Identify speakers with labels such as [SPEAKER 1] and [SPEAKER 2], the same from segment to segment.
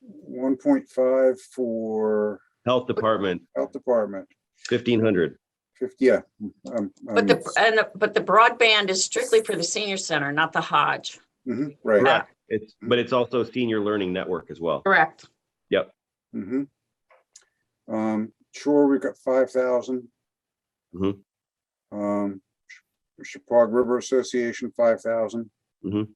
[SPEAKER 1] one point five for
[SPEAKER 2] Health Department,
[SPEAKER 1] health department,
[SPEAKER 2] fifteen hundred.
[SPEAKER 1] fifty, yeah. um,
[SPEAKER 3] But
[SPEAKER 1] um,
[SPEAKER 3] the, and, the- but the broadband is strictly for the senior center, not the Hodge.
[SPEAKER 1] mhm, Right.
[SPEAKER 2] Correct. It's, but it's also Senior Learning Network as well.
[SPEAKER 3] Correct.
[SPEAKER 1] mhm. Um, sure, we've got five thousand.
[SPEAKER 2] Mhm.
[SPEAKER 1] Um, Chippewa River Association, five thousand.
[SPEAKER 2] Mhm.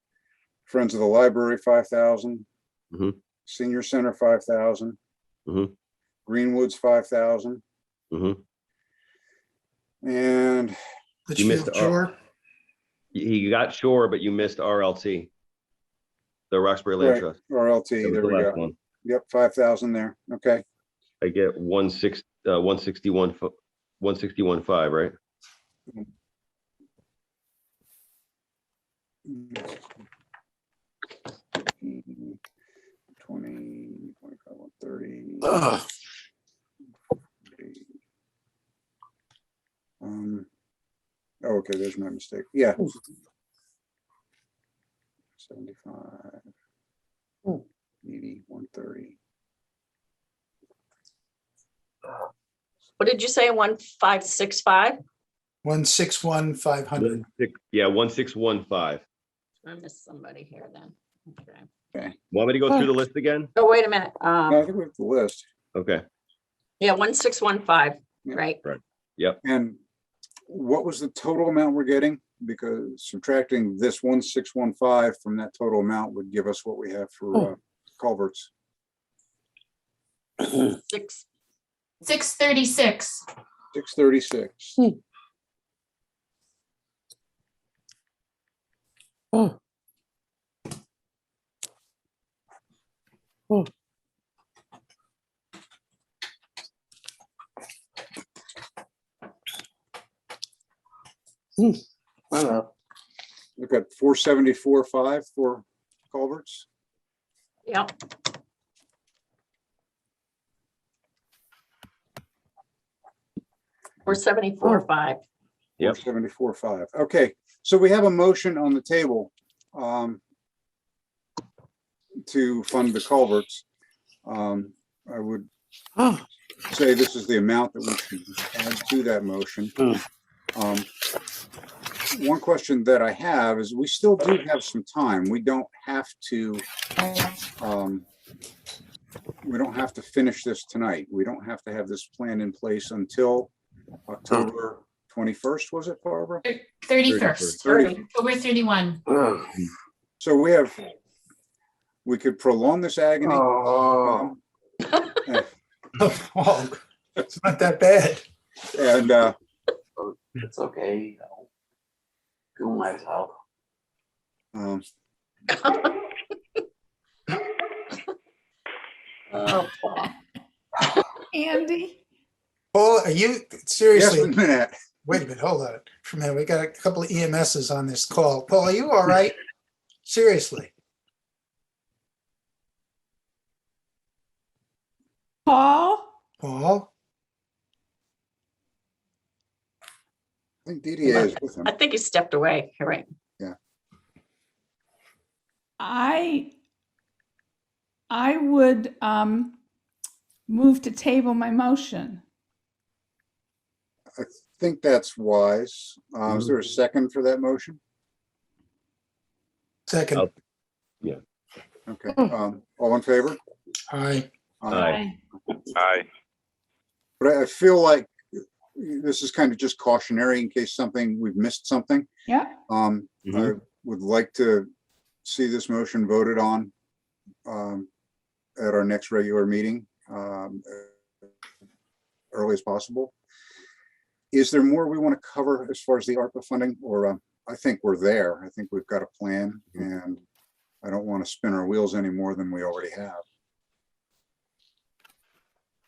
[SPEAKER 1] Friends of the Library, five thousand.
[SPEAKER 2] Mhm.
[SPEAKER 1] Senior Center, five thousand.
[SPEAKER 2] Mhm.
[SPEAKER 1] Greenwoods, five thousand,
[SPEAKER 2] Mhm.
[SPEAKER 1] and
[SPEAKER 2] You missed
[SPEAKER 4] Litchfield
[SPEAKER 2] our-
[SPEAKER 4] Shore,
[SPEAKER 2] You- You got Shore, but you missed RLT. The Roxbury Land
[SPEAKER 1] Right,
[SPEAKER 2] Trust. That
[SPEAKER 1] RLT,
[SPEAKER 2] was
[SPEAKER 1] there
[SPEAKER 2] the
[SPEAKER 1] we
[SPEAKER 2] last
[SPEAKER 1] go.
[SPEAKER 2] one.
[SPEAKER 1] Yep, five thousand there, okay.
[SPEAKER 2] I get one six, uh, one sixty-one, one sixty-one five, right?
[SPEAKER 1] Twenty, twenty-five, one thirty.
[SPEAKER 4] Ugh,
[SPEAKER 1] Um, oh, okay, there's my mistake, yeah. Seventy-five.
[SPEAKER 3] Hmm.
[SPEAKER 1] Eighty, one thirty,
[SPEAKER 3] What did you say? One, five, six, five?
[SPEAKER 4] one six one five hundred.
[SPEAKER 2] One six- Yeah, one six one five.
[SPEAKER 3] I missed somebody here then. Okay.
[SPEAKER 2] Want me to go through the list again?
[SPEAKER 3] Oh, wait a minute.
[SPEAKER 1] no, I
[SPEAKER 3] Um,
[SPEAKER 1] think we have the list,
[SPEAKER 2] Okay,
[SPEAKER 3] yeah, one, six, one, five,
[SPEAKER 1] Yeah.
[SPEAKER 3] right?
[SPEAKER 1] and what was the total amount we're getting? Because subtracting this one, six, one, five from that total amount would give us what we have for uh, culverts.
[SPEAKER 3] Six,
[SPEAKER 5] Six thirty-six.
[SPEAKER 1] Six thirty-six.
[SPEAKER 6] Hmm. Hmm. Hmm. Hmm.
[SPEAKER 1] We've got four seventy-four, five for culverts.
[SPEAKER 3] yep. Or seventy-four, five.
[SPEAKER 2] Yep.
[SPEAKER 1] Seventy-four, five. Okay, so we have a motion on the table um, to fund the culverts. Um, I would
[SPEAKER 6] Oh,
[SPEAKER 1] say this is the amount that we should add to that motion.
[SPEAKER 6] Hmm.
[SPEAKER 1] Um, One question that I have is we still do have some time. We don't have to, um, we don't have to finish this tonight. We don't have to have this plan in place until October 21st, was it, Barbara?
[SPEAKER 5] Thirty-first.
[SPEAKER 1] Thirty.
[SPEAKER 5] October thirty-one.
[SPEAKER 1] So we have, we could prolong this agony.
[SPEAKER 4] Oh.
[SPEAKER 1] um,
[SPEAKER 4] Well, Oh, It's not that bad.
[SPEAKER 1] And, uh,
[SPEAKER 7] It's okay. I'll do myself.
[SPEAKER 1] um,
[SPEAKER 3] Oh,
[SPEAKER 5] Andy?
[SPEAKER 4] Oh, are you,
[SPEAKER 1] yes,
[SPEAKER 4] seriously,
[SPEAKER 1] Minette.
[SPEAKER 4] wait a minute, hold on. For a minute, we got a couple of EMSs on this call. Paul, are you all right? Seriously?
[SPEAKER 6] Paul?
[SPEAKER 4] Paul?
[SPEAKER 1] I think DDA is with him.
[SPEAKER 3] I think he stepped away. You're right.
[SPEAKER 8] I, I would um move to table my motion.
[SPEAKER 1] I think that's wise. Uh, Is there a second for that motion?
[SPEAKER 4] Second,
[SPEAKER 2] Oh.
[SPEAKER 1] Okay, um, all in favor?
[SPEAKER 4] aye.
[SPEAKER 1] Um,
[SPEAKER 2] Aye.
[SPEAKER 1] But I- I feel like this is kind of just cautionary in case something, we've missed something.
[SPEAKER 8] Yep.
[SPEAKER 1] Um, I
[SPEAKER 2] Mhm.
[SPEAKER 1] would like to see this motion voted on um, at our next regular meeting, um, early as possible. Is there more we want to cover as far as the ARPA funding or um, I think we're there. I think we've got a plan and I don't want to spin our wheels any more than we already have.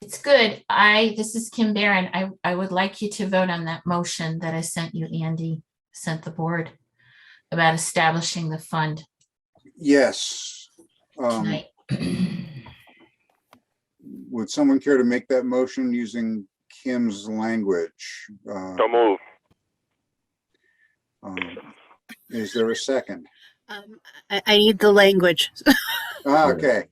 [SPEAKER 5] It's good. I, this is Kim Barron. I, I would like you to vote on that motion that I sent you, Andy, sent the board about establishing the fund
[SPEAKER 1] Yes. Um,
[SPEAKER 5] tonight. Yes,
[SPEAKER 1] would someone care to make that motion using Kim's language? Uh,
[SPEAKER 9] So move.
[SPEAKER 1] um, Is there a second?
[SPEAKER 6] Um, I, I need the language.
[SPEAKER 1] Ah, Okay.